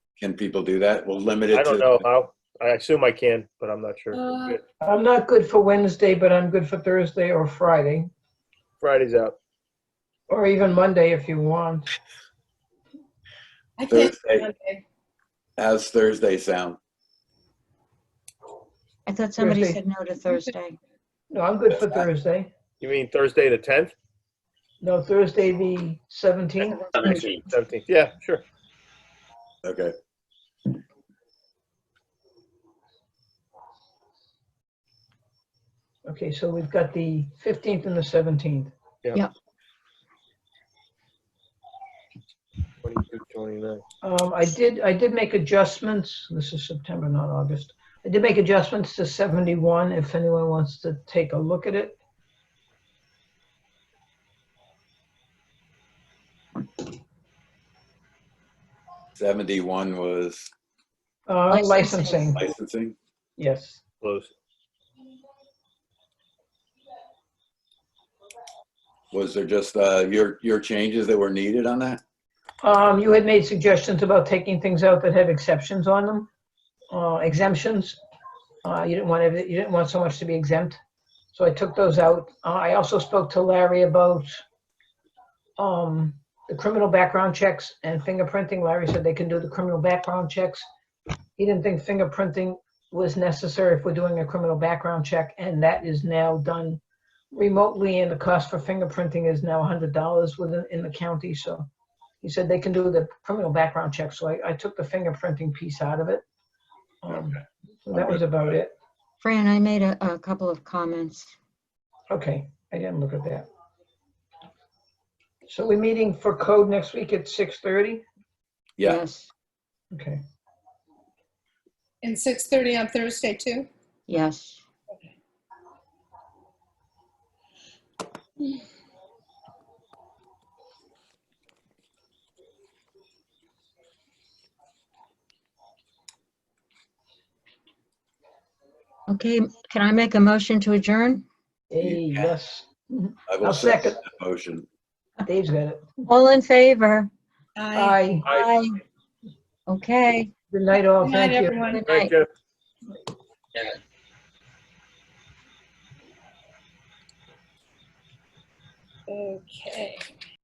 Can people do that? We'll limit it to. I don't know how. I assume I can, but I'm not Uh, sure. I'm not good for Wednesday, but I'm good for Thursday or Friday, Friday's out. or even Monday if you want. I can't. Thursday. How's Thursday sound? I thought somebody Thursday. said no to Thursday. No, I'm good for Thursday. You mean Thursday the 10th, No, Thursday the 17th. 17th? Yeah, sure. Okay. Okay, so we've got the 15th and the 17th. 22, 29. Um, I did, I did make adjustments. This is September, not August. I did make adjustments to 71 if anyone wants to take a look at it. Seventy-one was Uh, licensing, Licensing. licensing. yes. Close. Was there just, uh, your, your changes that were needed on that? Um, you had made suggestions about taking things out that have exceptions on them, uh, exemptions. Uh, you didn't want every, you didn't want so much to be exempt, so I took those out. Uh, I also spoke to Larry about, um, the criminal background checks and fingerprinting. Larry said they can do the criminal background checks. He didn't think fingerprinting was necessary if we're doing a criminal background check, and that is now done remotely, and the cost for fingerprinting is now hundred dollars within, in the county, so he said they can do the criminal background check, so I, I took the fingerprinting piece out of it. Um, so That was about it. Fran, I made a, a couple of comments. Okay, I didn't look at that. So we're meeting for code next week at 6:30? Yeah, Yes, Okay, And 6:30 on Thursday, too? yes. Okay, can I make a motion to adjourn? Hey, Yeah. yes, I will I'll second second. that motion. Dave's got it. All in favor? Aye, Aye. Okay, good night all, Good night, thank you. everyone. good night. Thank you. Okay.